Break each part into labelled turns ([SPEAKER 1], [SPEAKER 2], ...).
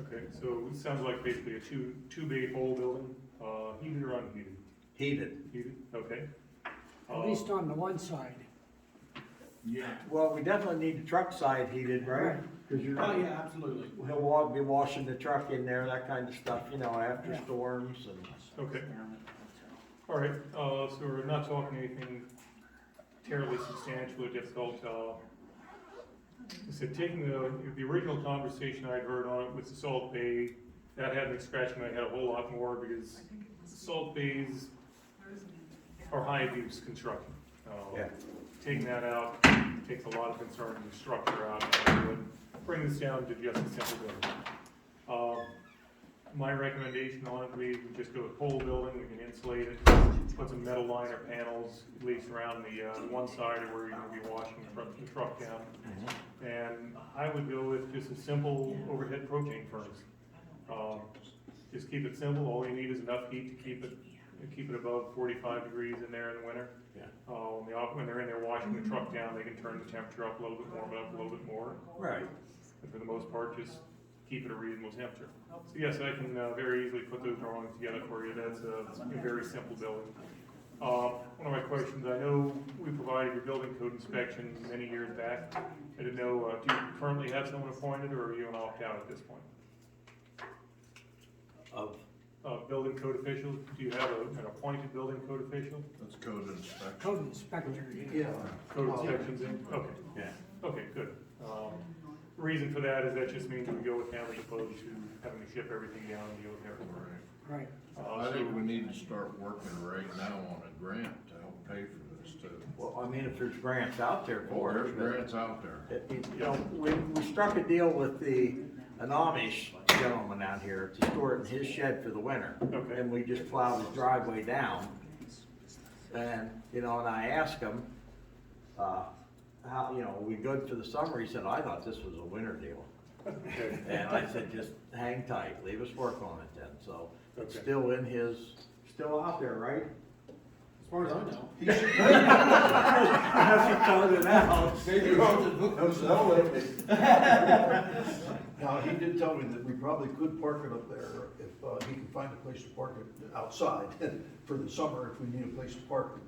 [SPEAKER 1] Okay, so it sounds like basically a two, two bay whole building, uh, heated or unheated?
[SPEAKER 2] heated.
[SPEAKER 1] Heated, okay.
[SPEAKER 3] at least
[SPEAKER 4] Oh.
[SPEAKER 3] on the one side.
[SPEAKER 5] Yeah.
[SPEAKER 2] Well, we definitely need the truck side heated, right? Cause you're
[SPEAKER 5] Oh,
[SPEAKER 2] not,
[SPEAKER 5] yeah, absolutely.
[SPEAKER 2] he'll wa- be washing the truck in there, that kind of stuff, you know, after
[SPEAKER 3] Yeah.
[SPEAKER 2] storms and.
[SPEAKER 1] Uh, Okay. All right, uh, so we're not talking anything terribly substantial or difficult, uh, I said, taking the, the original conversation I'd heard on it with the Salt Bay, that had me scratching my head a whole lot more, because Salt Bays are high abuse construction. Uh,
[SPEAKER 2] Yeah.
[SPEAKER 1] Taking that out takes a lot of concern and structure out, and I would bring this down to just a simple building. Uh, my recommendation on it, we would just do a pole building, we can insulate it, put some metal liner panels, at least around the, uh, one side of where you're gonna be washing from the truck down.
[SPEAKER 2] Mm-hmm.
[SPEAKER 1] And I would go with just a simple overhead propane furnace. Um, just keep it simple, all you need is enough heat to keep it, keep it above forty-five degrees in there in the winter.
[SPEAKER 2] Yeah.
[SPEAKER 1] Uh, when they, op- when they're in there washing the truck down, they can turn the temperature up a little bit, warm it up a little bit more.
[SPEAKER 2] Right.
[SPEAKER 1] And for the most part, just keep it a reasonable temperature. So yes, I can uh, very easily put those drawings together for you, that's a a very simple building. Uh, One of my questions, I know we provided your building code inspection many years back. I didn't know, uh, do you currently have someone appointed, or are you an opt-out at this point?
[SPEAKER 2] Of,
[SPEAKER 1] Uh, Building code official, do you have a- an appointed building code official?
[SPEAKER 5] That's code inspection.
[SPEAKER 3] Code inspector, yeah.
[SPEAKER 2] yeah,
[SPEAKER 1] Code inspections in, okay,
[SPEAKER 2] yeah.
[SPEAKER 1] okay, good. Um, Reason for that is that just means we go with them as opposed to having to ship everything down and deal with everything.
[SPEAKER 3] Right.
[SPEAKER 1] Uh,
[SPEAKER 5] I
[SPEAKER 1] so-
[SPEAKER 5] think we need to start working right now on a grant to help pay for this too.
[SPEAKER 2] Well, I mean, if there's grants out there
[SPEAKER 5] Well,
[SPEAKER 2] for it.
[SPEAKER 5] there's
[SPEAKER 2] but-
[SPEAKER 5] grants out there.
[SPEAKER 2] It- it- You know, we, we struck a deal with the, an Amish gentleman out here to store it in his shed for the winter.
[SPEAKER 1] Okay.
[SPEAKER 2] And we just plowed his driveway down. And, you know, and I asked him, uh, how, you know, we good for the summer? He said, I thought this was a winter deal.
[SPEAKER 1] Okay.
[SPEAKER 2] And I said, just hang tight, leave us work on it then, so it's
[SPEAKER 1] Okay.
[SPEAKER 2] still in his, still out there, right?
[SPEAKER 4] As far as I know.
[SPEAKER 6] Maybe you wrote the book, no, so Now, he did tell me that we probably could park it up there if, uh, he can find a place to park it outside for the summer if we need a place to park it.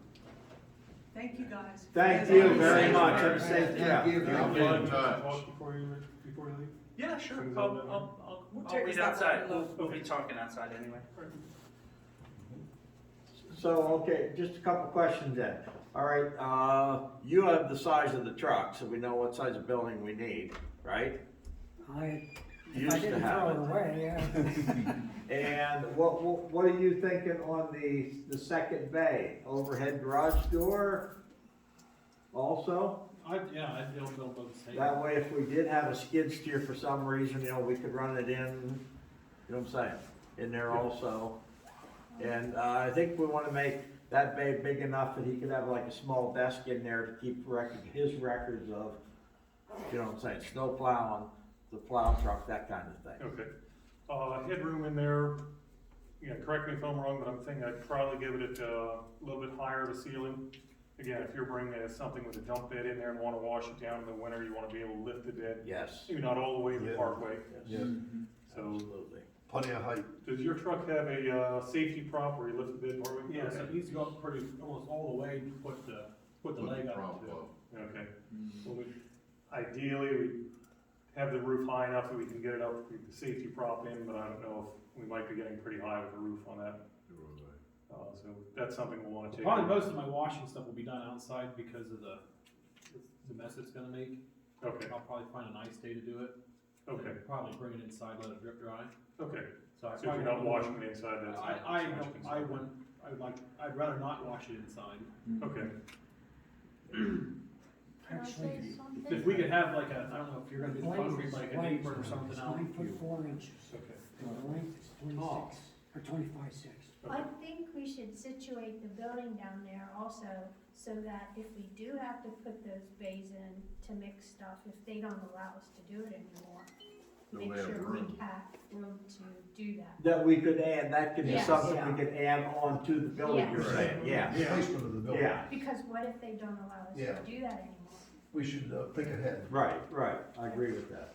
[SPEAKER 7] Thank you, guys.
[SPEAKER 2] Thank you very much, have a safe
[SPEAKER 6] Give
[SPEAKER 2] trip.
[SPEAKER 6] you-
[SPEAKER 5] I'll be in touch.
[SPEAKER 1] Talk Before you, before you leave?
[SPEAKER 8] Yeah, sure.
[SPEAKER 1] Things
[SPEAKER 8] I'll,
[SPEAKER 1] like that.
[SPEAKER 8] I'll, I'll,
[SPEAKER 7] We'll
[SPEAKER 8] I'll
[SPEAKER 7] take
[SPEAKER 8] wait
[SPEAKER 7] a step
[SPEAKER 8] outside.
[SPEAKER 7] out.
[SPEAKER 8] We'll, we'll be talking outside anyway.
[SPEAKER 2] So, okay, just a couple questions then. All right, uh, you have the size of the truck, so we know what size of building we need, right?
[SPEAKER 3] I,
[SPEAKER 2] You
[SPEAKER 3] if
[SPEAKER 2] used
[SPEAKER 3] I
[SPEAKER 2] to
[SPEAKER 3] didn't
[SPEAKER 2] have
[SPEAKER 3] throw
[SPEAKER 2] it.
[SPEAKER 3] it away, yeah.
[SPEAKER 2] And what, what, what are you thinking on the, the second bay, overhead garage door also?
[SPEAKER 4] I, yeah, I don't know about the same.
[SPEAKER 2] That way, if we did have a skid steer for some reason, you know, we could run it in, you know what I'm saying, in there also. And, uh, I think we wanna make that bay big enough that he could have like a small desk in there to keep record, his records of, you know what I'm saying, snow plowing, the plow truck, that kind of thing.
[SPEAKER 1] Okay. Uh, headroom in there, you know, correct me if I'm wrong, but I'm thinking I'd probably give it a, uh, little bit higher of a ceiling. Again, if you're bringing uh, something with a dump bed in there and wanna wash it down in the winter, you wanna be able to lift the bed,
[SPEAKER 2] Yes,
[SPEAKER 1] maybe not all the way to the
[SPEAKER 6] Yeah.
[SPEAKER 1] parkway.
[SPEAKER 6] Yeah,
[SPEAKER 8] Mm-hmm.
[SPEAKER 1] So,
[SPEAKER 2] absolutely.
[SPEAKER 6] Plenty of height.
[SPEAKER 1] does your truck have a, uh, safety prop where you lift the bed partway?
[SPEAKER 4] Yeah, so
[SPEAKER 1] Okay.
[SPEAKER 4] he's gone pretty, almost all the way to put the, put the
[SPEAKER 5] Put
[SPEAKER 4] leg
[SPEAKER 5] the
[SPEAKER 4] up
[SPEAKER 5] prop
[SPEAKER 4] to.
[SPEAKER 5] up.
[SPEAKER 1] Okay.
[SPEAKER 4] Mm-hmm.
[SPEAKER 1] Well, we- Ideally, we have the roof high enough that we can get it up, with the safety prop in, but I don't know if, we might be getting pretty high with the roof on that. Uh, so that's something we'll wanna take.
[SPEAKER 4] Probably most of my washing stuff will be done outside because of the, the mess it's gonna make.
[SPEAKER 1] Okay,
[SPEAKER 4] I'll probably find a nice day to do it.
[SPEAKER 1] okay,
[SPEAKER 4] And Probably bring it inside, let it drip dry.
[SPEAKER 1] okay.
[SPEAKER 4] So I
[SPEAKER 1] So if you're
[SPEAKER 4] probably.
[SPEAKER 1] not
[SPEAKER 4] won't-
[SPEAKER 1] washing it inside, that's.
[SPEAKER 4] I,
[SPEAKER 1] not
[SPEAKER 4] I,
[SPEAKER 1] so much
[SPEAKER 4] don't- I
[SPEAKER 1] concern.
[SPEAKER 4] wouldn't, I would like, I'd rather not wash it inside.
[SPEAKER 1] Okay,
[SPEAKER 9] Can I say
[SPEAKER 3] Actually,
[SPEAKER 9] something?
[SPEAKER 4] If we could have like a, I don't know if you're gonna do the
[SPEAKER 3] Blades,
[SPEAKER 4] concrete, like a
[SPEAKER 3] blades,
[SPEAKER 4] apron or something
[SPEAKER 3] it's
[SPEAKER 4] out.
[SPEAKER 3] Nine foot four inches,
[SPEAKER 1] okay.
[SPEAKER 3] and the length is
[SPEAKER 2] Oh.
[SPEAKER 3] twenty-six, or twenty-five six.
[SPEAKER 9] I think we should situate the building down there also, so that if we do have to put those bays in to mix stuff, if they don't allow us to do it anymore,
[SPEAKER 5] They'll
[SPEAKER 9] make
[SPEAKER 5] have
[SPEAKER 9] sure we
[SPEAKER 5] room.
[SPEAKER 9] have room to do that.
[SPEAKER 2] That we could add, that could be
[SPEAKER 9] Yes.
[SPEAKER 2] something we could add on to the building you're
[SPEAKER 9] Yes.
[SPEAKER 2] saying, yeah,
[SPEAKER 6] Placement of the building.
[SPEAKER 2] yeah,
[SPEAKER 9] Because what if they don't allow us
[SPEAKER 6] Yeah.
[SPEAKER 9] to do that anymore?
[SPEAKER 6] We should uh, think ahead.
[SPEAKER 2] right, right, I agree with that.